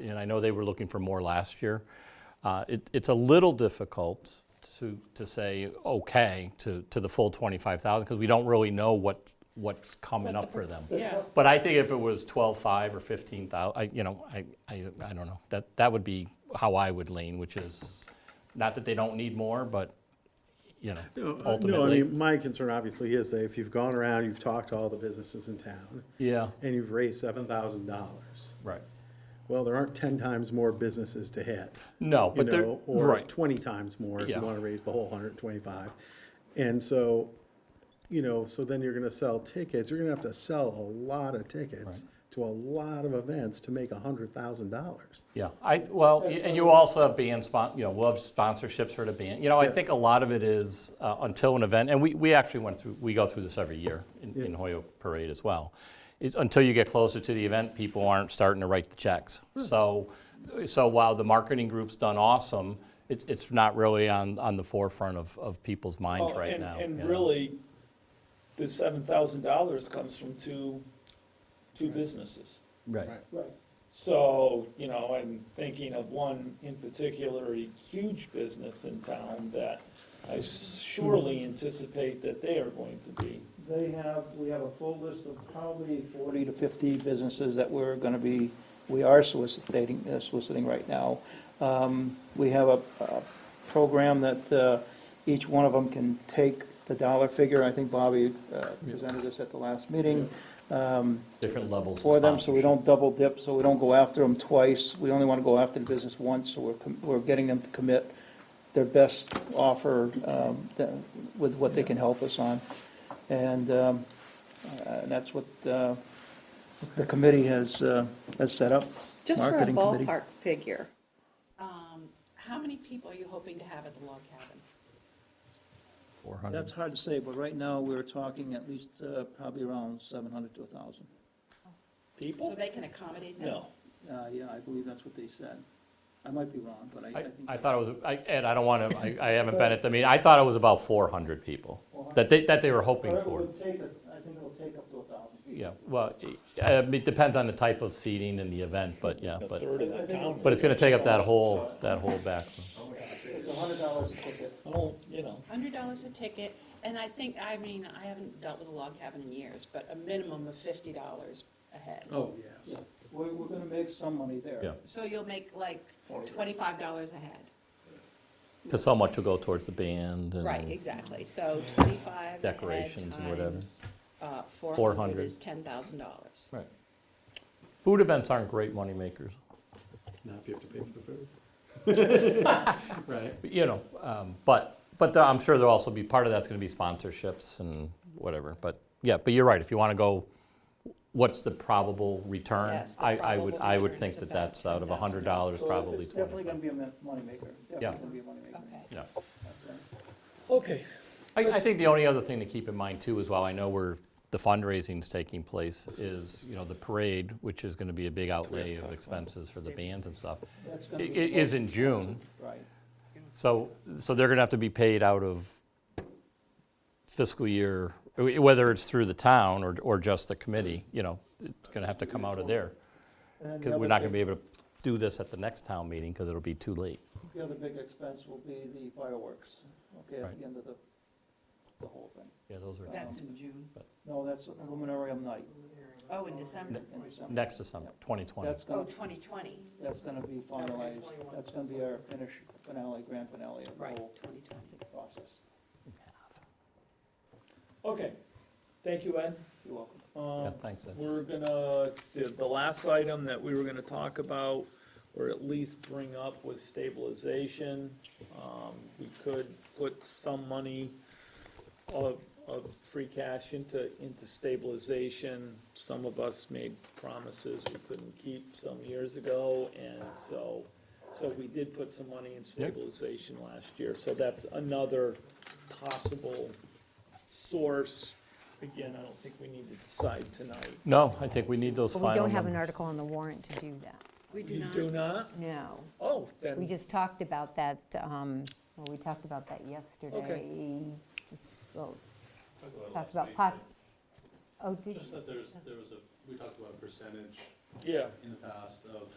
and I know they were looking for more last year. Uh, it- It's a little difficult to, to say, okay, to, to the full 25,000, because we don't really know what, what's coming up for them. Yeah, But I think if it was 12.5 or 15,000, I, you know, I, I, I don't know. That, that would be how I would lean, which is, not that they don't need more, but, you No, know, uh, No, I ultimately. mean, my concern obviously is that if you've gone around, you've talked to all the businesses in town, Yeah, and you've raised seven thousand dollars, right. well, there aren't ten times more businesses to hit. No, you but they're, know, Or right, twenty times more if Yeah. you wanna raise the whole hundred and twenty-five. And so, you know, so then you're gonna sell tickets, you're gonna have to sell a lot of tickets to a lot of events to make a hundred thousand dollars. yeah. I, well, y- and you also have band spon, you know, we'll have sponsorships for the band. You know, I Yeah. think a lot of it is uh, until an event, and we, we actually went through, we go through this every year in, in Hoyoke Parade as well. It's until you get closer to the event, people aren't starting to write the checks. Hmm. So, so while the marketing group's done awesome, it's, it's not really on, on the forefront of, of people's minds Well, right and- now. you And know. really, the seven thousand dollars comes from two, two businesses. Right, So, you know, I'm thinking of one in particular, a huge business in town that I surely anticipate that they are going to be. They have, we have a full list of probably 40 to 50 businesses that we're going to be, we are soliciting, uh, soliciting right now. Um, We have a a program that uh, each one of them can take the dollar figure. I think Bobby uh, presented this at the last meeting um, different levels of for them, so we sponsorship. don't double dip, so we don't go after them twice. We only want to go after the business once, so we're, com- we're getting them to commit their best offer um, that- with what they can help us on. And, um, uh, and that's what uh, the committee has, uh, has set up. Just for a marketing committee. ballpark figure, Um, How many people are you hoping to have at the log cabin? 400. That's hard to say, but right now, we're talking at least uh, probably around 700 to 1,000. So People? they can accommodate them? No. Uh, Yeah, I believe that's what they said. I might be wrong, but I I I, think. I that's- thought it was, I- Ed, I don't want to, I, I haven't been at the meeting, I thought it was about 400 people that they, that they were hoping However, it for. would take it- I think it'll take up to 1,000. Yeah, well, I- I mean, it depends on the type of seating and the event, but yeah, A but, third of the town. but it's going to take up that is- whole, that whole back. room. It's hundred dollars a ticket. Oh, you know, Hundred dollars a ticket, and I think, I mean, I haven't dealt with a log cabin in years, but a minimum of fifty dollars a head. Oh, yes. We're, we're gonna make some money there. Yeah. So you'll make like twenty-five dollars a head? Because so much will go towards the band Right, and, exactly, so twenty-five a head Decorations and whatever. times, uh, four 400. hundred is ten thousand dollars. right. Food events aren't great moneymakers, Not if you have to pay for the food. Right. but, you know, um, but, but there- I'm sure there'll also be, part of that's going to be sponsorships and whatever, but, yeah, but you're right, if you want to go, what's the probable return? Yes, the I, I would, probable I would return think is that about that's out of $100 So probably It's definitely 25. gonna be a mon- moneymaker, Yeah. definitely gonna be a moneymaker. Okay. Yeah. okay. I, I think the only other thing to keep in mind too is while I know where the fundraising's taking place is, you know, the parade, which is gonna be a big outlay of expenses for the bands and stuff, That's i- i- gonna be. is in June. Right. So, so they're gonna have to be paid out of fiscal year, wh- whether it's through the town or, or just the committee, you know, it's gonna have to come out of there. And then the Cause other we're not gonna be big- able to do this at the next town meeting, cause it'll be too late. The other big expense will be the fireworks, okay, Right. at the end of the, the whole thing. Yeah, those are That's in June, No, that's Luminarium night oh, in December, in December. next December, 2020. That's oh, gonna, 2020, that's gonna be finalized, that's gonna be our finish finale, grand finale of the right, whole 2020. process. Okay. Thank you, Ed. You're welcome. Yeah, Um, thanks, Ed. We're gonna, the, the last item that we were gonna talk about, or at least bring up, was stabilization. Um, we could put some money of, of free cash into, into stabilization. Some of us made promises we couldn't keep some years ago, and so, so we did put some money in stabilization last year. So that's another possible source. Again, I don't think we need to decide tonight. No, I think we need those But we final don't have an numbers. article on the warrant to do that, We do You not. do not? no. Oh, We then, just talked about that, um, well, we talked about that yesterday. Just, well, Talked about poss, oh, did you? Just that there's, there was a, we talked about a percentage yeah. in the past of